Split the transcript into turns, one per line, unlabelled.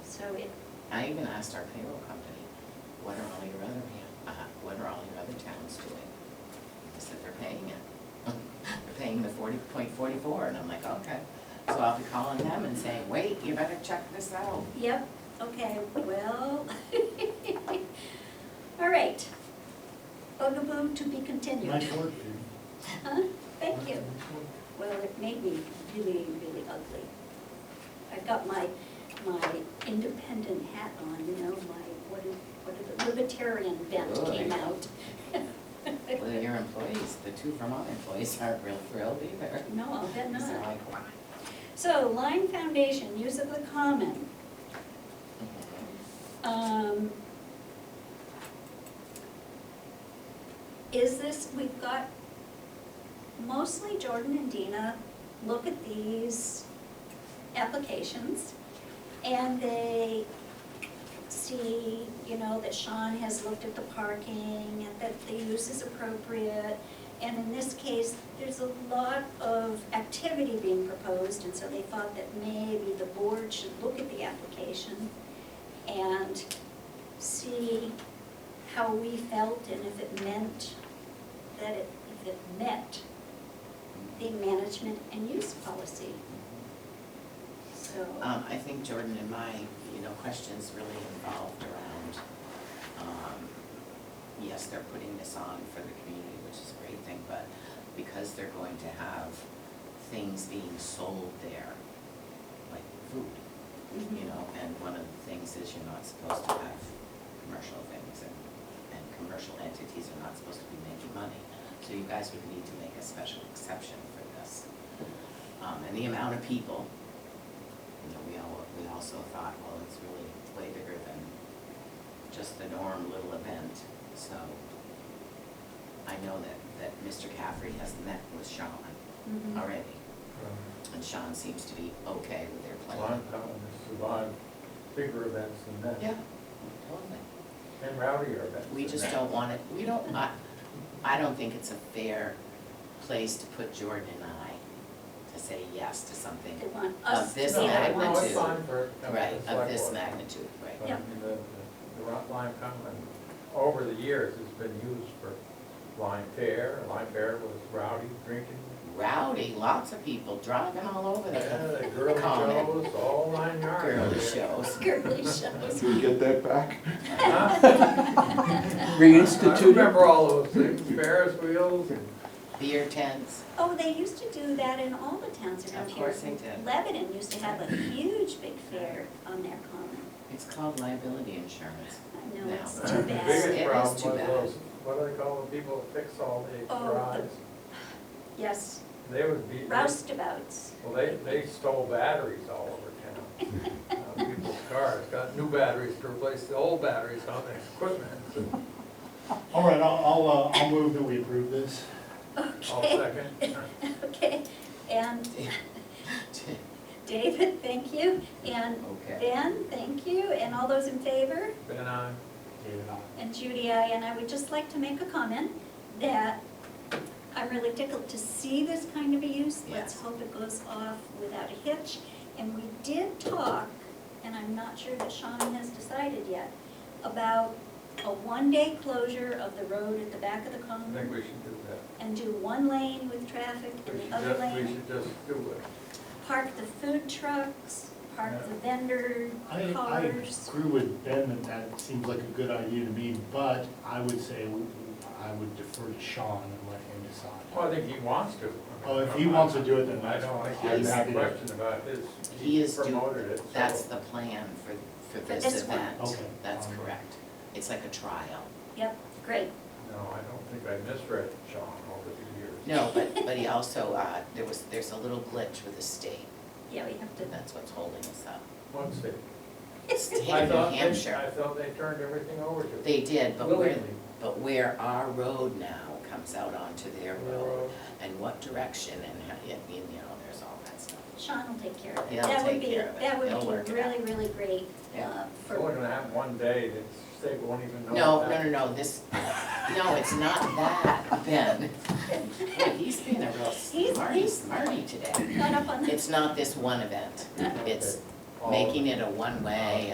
it,
I even asked our payroll company, what are all your other, uh, what are all your other towns doing? They said they're paying it. They're paying the forty point forty-four, and I'm like, okay. So I'll be calling them and saying, wait, you better check this out.
yep, okay, well. All right. Bugaboo to be continued.
Nice work, Judy.
Huh? Thank you.
Nice work.
Well, it made me really, really ugly. I've got my, my independent hat on, you know, my, what is, what is it, libertarian bent
Oh,
came
Good.
out.
Well, your employees, the two Vermont employees aren't real thrilled either.
No, I'll bet
So I'm
not.
like, "Why?"
So Lime Foundation, use of the common. Um, Is this, we've got mostly Jordan and Dina look at these applications and they see, you know, that Sean has looked at the parking and that the use is appropriate. And in this case, there's a lot of activity being proposed and so they thought that maybe the board should look at the application and see how we felt and if it meant that it, if it met the
Mm-hmm.
management and use policy. So,
Um, I think Jordan and my, you know, questions really involved around, um, yes, they're putting this on for the community, which is a great thing, but because they're going to have things being sold there, like food, you know, and one of the things is you're not supposed to have commercial things and, and commercial entities are not supposed to be making money. So you guys would need to make a special exception for this. Um, and the amount of people, you know, we all, we also thought, well, it's really way bigger than just the norm little event, so. I know that, that Mr. Caffrey has met with Sean
Mhm.
already,
Um,
and Sean seems to be okay with their
A
plan.
lot of them survive bigger events than that.
Yeah, totally.
And rowdier events.
We
than
just
that.
don't want it, we don't, I, I don't think it's a fair place to put Jordan and I to say yes to something
they want
of
us to be
this
the
No, No,
ones-
magnitude.
it's fine for. for
Right,
the
of
select
this
board.
magnitude, right.
But
Yeah.
the- The the rock lime common, over the years, has been used for lime fair. Lime fair was rowdy drinking.
Rowdy, lots of people driving all over
Yeah,
the
the girly
Common.
shows, all nine yards.
girly shows.
Girly shows.
Did we get that back?
Huh? I
Reinstituted?
remember all those things, Ferris wheels and
Beer tents,
Oh, they used to do that in all the towns around
Of
here.
course they did.
Lebanon used to have a huge big fair on their common.
it's called liability insurance.
I know,
No.
it's
The
too bad.
It is
biggest problem
too
was
bad.
those, what do they call the people that fix all the
Oh,
garages?
Yes,
They would be, well,
roustabouts.
they, they stole batteries all over town. Uh, People's cars got new batteries to replace the old batteries on their equipment.
All right, I'll, I'll, uh, I'll move that we approve this.
All
Okay,
second.
okay. And David, thank you. And
Okay.
Ben, thank you, and all those in favor?
Then I,
David, aye.
And Judy, I, and I would just like to make a comment that I'm really tickled to see this kind of a use. Let's
Yes.
hope it goes off without a hitch. And we did talk, and I'm not sure that Sean has decided yet, about a one-day closure of the road at the back of the
I think
common
we should do that.
and do one lane with traffic
We
and
should
the other
just, we
lane.
should just do it.
Park the food trucks, park the vendor
I, I
cars.
agree with Ben that that seems like a good idea to me, but I would say, w- I would defer to Sean and let him
Well, I
decide.
think he wants to.
Oh, if he wants to do it, then
I
that's.
don't think
I'm
there's
happy
any
to-
question about his,
He
he
is doing,
promoted it, so.
that's the plan for, for this
this one.
event.
Okay.
That's
Um,
correct. It's like a trial.
Yep, great.
No, I don't think I misread Sean over the years.
No, but, but he also, uh, there was, there's a little glitch with the state,
Yeah, we have to.
and that's what's holding us up.
Once they.
State
I
of New
thought they-
Hampshire,
I thought they turned everything over to.
they did, but where,
Willingly.
but where our road now comes out onto their road,
Railroad.
and what direction, and how, you you know, there's all that stuff.
Sean will take care of it.
He'll
That would
take
be,
care of it.
that
He'll
would
work
be
it out.
really, really great
Yeah.
uh,
It's only
for,
"Oh, gonna happen one day, that they won't even know.
No, no,
what
no,
happened.
no, this, no, it's not that, Ben. Boy, He's being a real
He's-
smarty,
he's-
smarty today.
not up on the.
It's not this one event, it's
Okay. All-
making it a one-way